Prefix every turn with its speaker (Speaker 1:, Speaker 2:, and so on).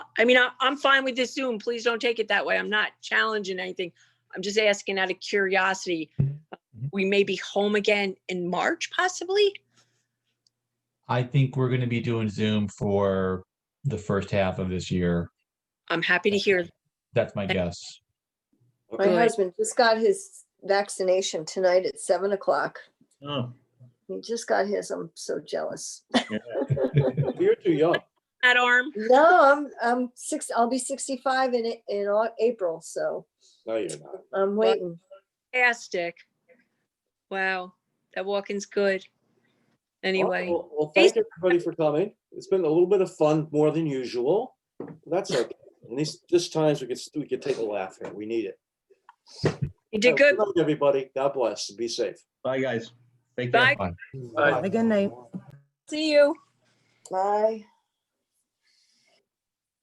Speaker 1: I mean, I, I'm fine with this Zoom. Please don't take it that way. I'm not challenging anything. I'm just asking out of curiosity. We may be home again in March possibly.
Speaker 2: I think we're gonna be doing Zoom for the first half of this year.
Speaker 1: I'm happy to hear.
Speaker 2: That's my guess.
Speaker 3: My
Speaker 1: Good.
Speaker 3: husband just got his vaccination tonight at seven o'clock.
Speaker 4: Ah,
Speaker 5: Oh,
Speaker 3: He just got his. I'm so jealous.
Speaker 5: You're too young.
Speaker 1: That arm,
Speaker 3: No, I'm, I'm six, I'll be sixty-five in, A- in Au- April, so
Speaker 5: No, you're not.
Speaker 3: I'm waiting.
Speaker 1: fantastic. Wow, that walk-in's good. Anyway,
Speaker 5: Well, well, thank everybody for coming. It's been a little bit of fun, more than usual. That's okay. And these, this times we could, we could take a laugh here. We need it.
Speaker 1: you did good.
Speaker 5: Good luck, Everybody, God bless. Be safe.
Speaker 4: Bye, guys. Take care.
Speaker 1: Bye,
Speaker 2: Bye.
Speaker 5: Bye.
Speaker 6: Good night.
Speaker 1: see you.
Speaker 3: Bye.